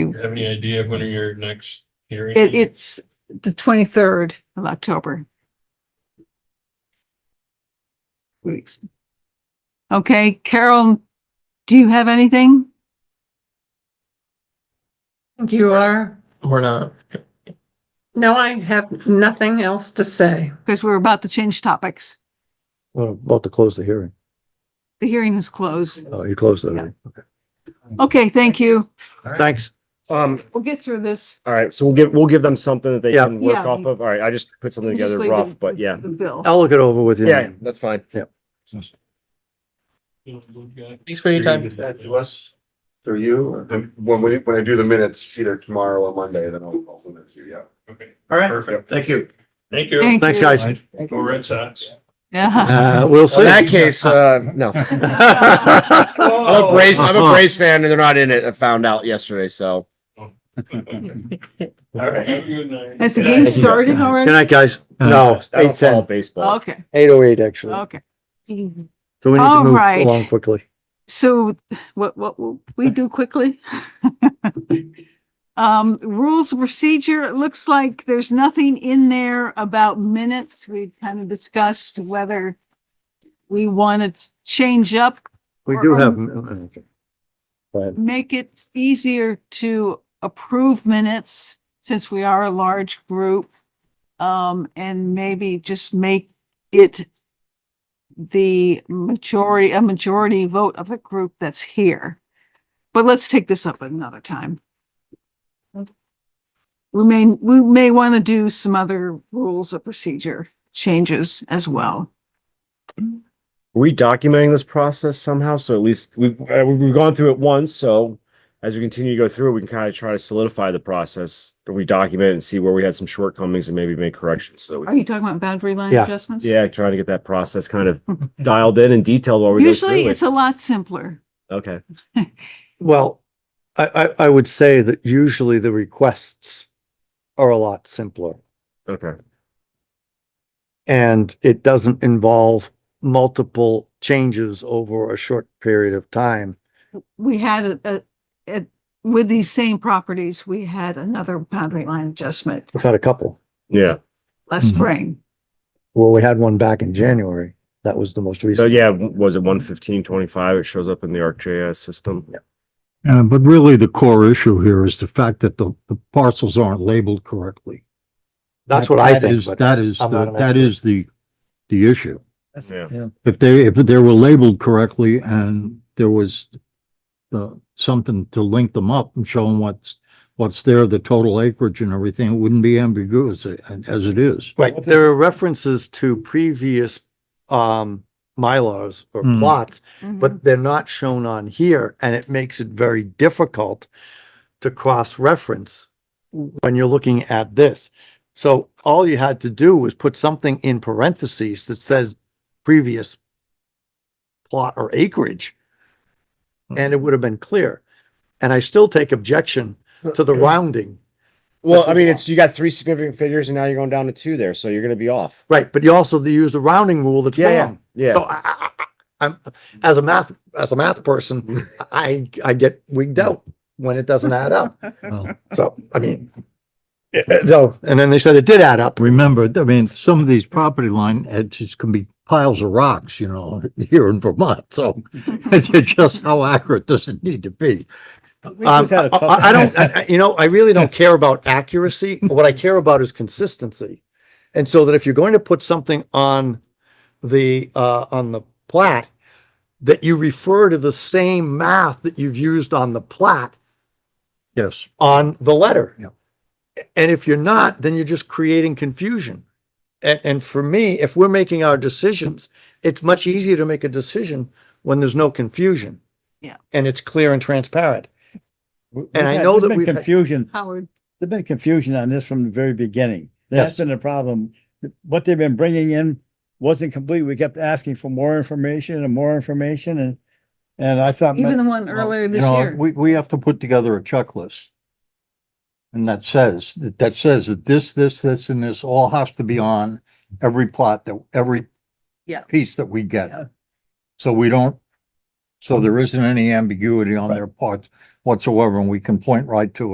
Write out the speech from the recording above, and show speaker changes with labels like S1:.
S1: You Have any idea when are your next hearing?
S2: It, it's the twenty-third of October. Weeks. Okay, Carol, do you have anything?
S3: think You are.
S4: We're not.
S3: No, I have nothing else to say.
S2: Because we're about to change topics.
S5: Well, about to close the hearing.
S2: The hearing is closed.
S5: Oh, you closed it. already. Okay.
S2: Okay, thank you.
S5: Thanks.
S6: Um,
S2: We'll get through this.
S6: all right, so we'll give, we'll give them something that they
S5: Yeah.
S6: can work
S2: Yeah.
S6: off of. All right, I just put something
S2: We'll just
S6: together
S2: leave
S6: rough,
S2: the-
S6: but yeah.
S2: The bill.
S5: I'll look it over with you.
S6: Yeah, that's fine.
S4: Thanks for your time.
S7: that to us? Through you? When we, when I do the minutes, either tomorrow or Monday, then I'll, I'll send it to you, yeah.
S1: Okay.
S7: All
S1: Perfect.
S7: Thank you.
S1: Thank you.
S2: Thank
S5: Thanks,
S2: you.
S5: guys.
S1: Go Red Sox.
S2: Yeah.
S5: Uh, we'll
S6: In
S5: see.
S6: that case, uh, no.
S1: Oh,
S6: I'm
S5: Oh.
S6: a Braves, I'm
S5: Uh-huh.
S6: a Braves fan and they're not in it. I found out yesterday, so.
S7: All right.
S1: Have a good night.
S2: Has the game started
S5: Good
S2: already?
S5: night, guys.
S6: No,
S5: No,
S6: I don't
S5: eight
S6: follow
S5: ten,
S6: baseball.
S2: Okay,
S5: eight oh eight, actually.
S2: okay.
S5: So we need
S2: All
S5: to move
S2: right.
S5: along quickly.
S2: So what, what will we do quickly? Um, rules of procedure, it looks like there's nothing in there about minutes. We've kind of discussed whether we want to change up
S5: We
S2: Or,
S5: do
S2: um,
S5: have. okay. Go ahead.
S2: make it easier to approve minutes since we are a large group. Um, and maybe just make it the majority, a majority vote of the group that's here. But let's take this up another time. We may, we may want to do some other rules of procedure changes as well.
S6: Are we documenting this process somehow? So at least we've, uh, we've gone through it once, so as we continue to go through, it, we can kind of try to solidify the process. We document and see where we had some shortcomings and maybe make corrections. So we
S2: Are you talking about boundary line
S5: Yeah.
S2: adjustments?
S6: Yeah, trying to get that process kind of dialed in and detailed while we go
S2: Usually
S6: through
S2: it's
S6: it.
S2: a lot simpler.
S6: Okay,
S5: Well, I, I, I would say that usually the requests are a lot simpler
S6: okay.
S5: and it doesn't involve multiple changes over a short period of time.
S2: we had a, a, it- with these same properties, we had another boundary line adjustment
S5: We've had a couple.
S6: Yeah.
S2: last
S5: Mhm.
S2: spring.
S5: Well, we had one back in January. That was the most
S6: So
S5: recent.
S6: yeah, w- was it one fifteen twenty-five? It shows up in the ArcGIS system.
S8: Uh, but really the core issue here is the fact that the, the parcels aren't labeled correctly.
S5: That's
S8: That-
S5: what I
S8: that
S5: think,
S8: is-
S5: but
S8: That is,
S5: I'm
S8: the-
S5: not an
S8: that
S5: expert.
S8: is the, the issue.
S6: Yeah.
S8: If they, if they were labeled correctly and there was uh, something to link them up and show them what's, what's there, the total acreage and everything, it wouldn't be ambiguous uh, as it is.
S5: Right, there are references to previous um Mylars or
S8: Hmm.
S5: plots,
S6: Mm-hmm.
S5: but they're not shown on here, and it makes it very difficult to cross-reference when you're looking at this. So all you had to do was put something in parentheses that says previous plot or acreage,
S6: Hmm.
S5: and it would have been clear. And I still take objection
S6: Uh,
S5: to the rounding.
S6: Well,
S5: This
S6: I
S5: is
S6: mean,
S5: off.
S6: it's, you got three significant figures and now you're going down to two there, so you're gonna be off.
S5: Right, but you also use the rounding rule that's
S6: Yeah, yeah,
S5: wrong. So
S6: Yeah,
S5: I, I, I- I'm, as a math, as a math person, I, I get wigged out when it doesn't add up.
S8: Well-
S5: So, I mean, eh, eh, no, and then they said it did add up.
S8: Remember, I mean, some of these property line edges can be piles of rocks, you know, here in Vermont, so it's just how accurate does it need to be?
S5: Um, I, I- I don't, I- I- you know, I really don't care about accuracy. What I care about is consistency. And so that if you're going to put something on the, uh, on the plat, that you refer to the same math that you've used on the plat
S8: Yes.
S5: on the letter.
S8: Yep.
S5: And if you're not, then you're just creating confusion. And, and for me, if we're making our decisions, it's much easier to make a decision when there's no confusion.
S2: Yeah.
S5: And it's clear and transparent.
S9: And I know that we've. had- Confusion,
S2: Howard,
S9: there's been confusion on this from the very beginning. That's
S5: Yes.
S9: been the problem. What they've been bringing in wasn't complete. We kept asking for more information and more information and, and I thought.
S2: even the one earlier
S8: You
S2: this
S8: know,
S2: year.
S8: We, we have to put together a checklist. And that says, that that says that this, this, this, and this all has to be on every plot that, every
S2: Yeah.
S8: piece that we get.
S2: Yeah. Mm-hmm.
S8: So we don't, so there isn't any ambiguity on their part whatsoever, and we can point right to it.